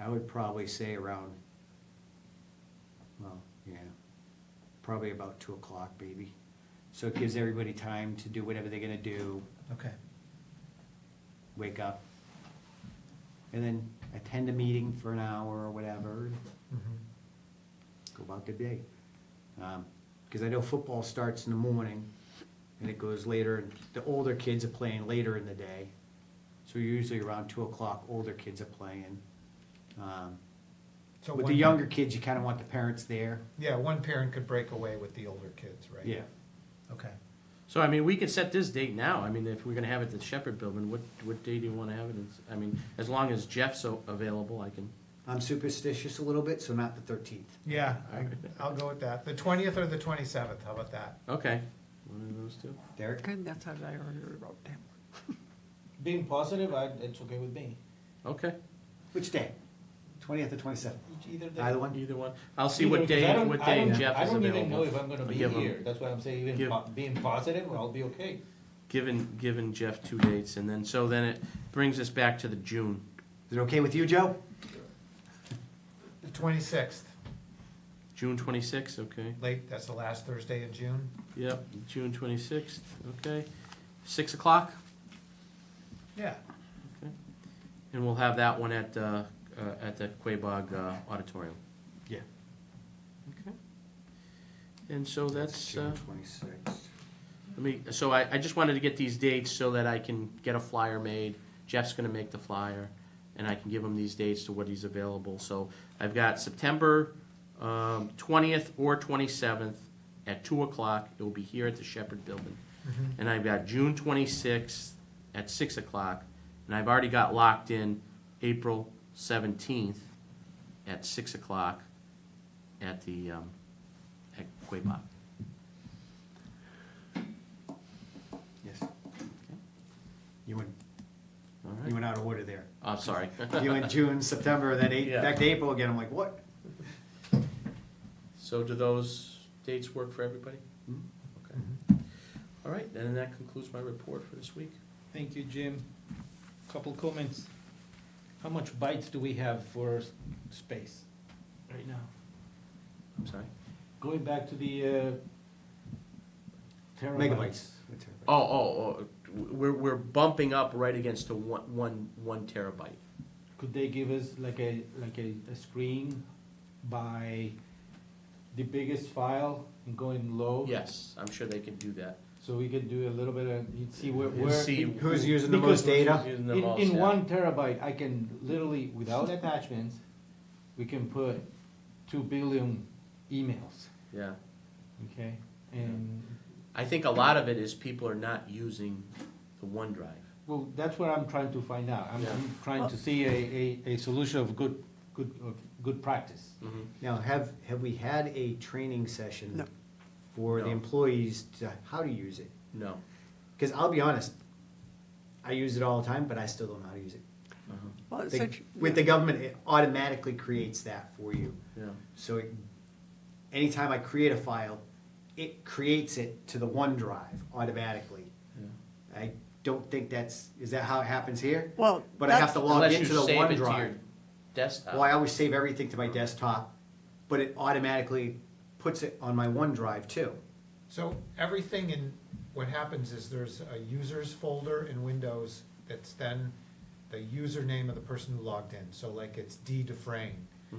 I would probably say around, well, yeah, probably about two o'clock, maybe. So it gives everybody time to do whatever they're gonna do, Okay, wake up, and then attend a meeting for an hour or whatever, mhm, go about their day. Because I know football starts in the morning, and it goes later, and the older kids are playing later in the day. So usually around two o'clock, older kids are playing. Um, so With the one- younger kids, you kind of want the parents there. Yeah, one parent could break away with the older kids, right? Yeah. Okay, So, I mean, we can set this date now. I mean, if we're gonna have it at the Shepherd Building, what, what day do you wanna have it? It's- I mean, as long as Jeff's a- available, I can, I'm superstitious a little bit, so not the thirteenth. yeah, I- I'll go with that. The twentieth or the twenty-seventh, how about that? okay. One of those two. Derek? Good, that's how I already wrote down. Being positive, I, it's okay with me. Okay, Which day? Twentieth or twenty-seventh? Each- Either day. Either one? either one. I'll see what Either, 'cause I day, don't- what I day don't- Jeff is available. I don't even know if I'm gonna I'll be give him- here, that's why I'm saying even give- po- being positive, I'll be okay. Given, given Jeff two dates, and then, so then it brings us back to the June. Is it okay with you, Joe? The twenty-sixth, June twenty-sixth, okay. late, that's the last Thursday in June. Yep, June twenty-sixth, okay. Six o'clock, Yeah, and we'll have that one at, uh, uh, at the Quabog uh, Auditorium. Yeah. Okay. And so that's, uh, June twenty-sixth. let me, so I, I just wanted to get these dates so that I can get a flyer made. Jeff's gonna make the flyer, and I can give him these dates to what he's available. So I've got September, um, twentieth or twenty-seventh at two o'clock. It will be here at the Shepherd Building. mhm, And I've got June twenty-sixth at six o'clock, and I've already got locked in April seventeenth at six o'clock at the, um, at Quabog. Yes. You went, All you right, went out of order there. I'm sorry. You went June, September, then eight, Yeah. back to April again. I'm like, what? So do those dates work for everybody? Mhm. Okay. All right, then that concludes my report for this week. Thank you, Jim. Couple comments. How much bites do we have for space? Right now. I'm sorry? Going back to the, uh, Megabytes. Oh, oh, oh, we're, we're bumping up right against to one, one, one terabyte. Could they give us like a, like a, a screen by the biggest file and going Oh. low? Yes, I'm sure they can do that. So we could do a little bit of, you'd see where, And where. see Who's using the Because- most data? Using them In, all, in yeah. one terabyte, I can literally, without attachments, we can put two billion emails, Yeah, okay? And, I think a lot of it is people are not using the OneDrive. well, that's what I'm trying to find out. I'm, Yeah. I'm trying to see a, a, a solution of good, good, of good practice. Mm-hmm. Now, have, have we had a training session? No. For the No. employees to, how to use it? No. Because I'll be honest, I use it all the time, but I still don't know how to use it. Uh-huh. Well, it's The- such- with the government, it automatically creates that for you. Yeah, So it, anytime I create a file, it creates it to the OneDrive automatically. yeah. I don't think that's, is that how it happens here? Well, But I have that's- to log Unless into the you save it to your OneDrive. desktop. Well, I always save everything to my desktop, but it automatically puts it on my OneDrive too. so everything in, what happens is there's a users folder in Windows that's then the username of the person who logged in, so like it's D Dufrain. Mhm.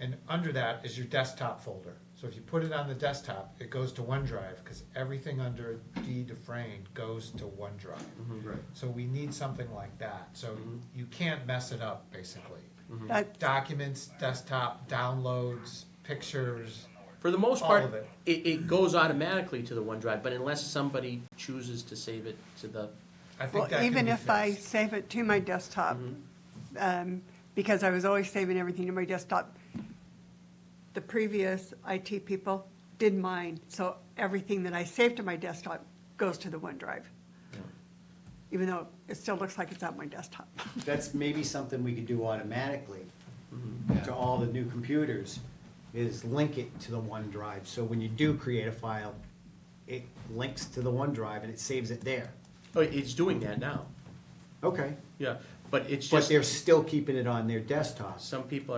And under that is your desktop folder. So if you put it on the desktop, it goes to OneDrive, because everything under D Dufrain goes to OneDrive. Mhm. Right. So we need something like that, so Mhm. you can't mess it up, basically. that- Documents, desktop, downloads, pictures, For the most All part, of it. it, it goes automatically to the OneDrive, but unless somebody chooses to save it to the, I think Well, that can even be if I fixed. Mm-hmm. save it to my desktop, um, because I was always saving everything to my desktop, the previous IT people did mine, so everything that I saved to my desktop goes to the OneDrive. Even though it still looks like it's on my desktop. That's maybe something we could do automatically to all the new computers, is link it to the OneDrive. So when you do create a file, it links to the OneDrive and it saves it there. oh, it's doing that now. Okay. Yeah, but it's But just, they're still keeping it on their desktop. some people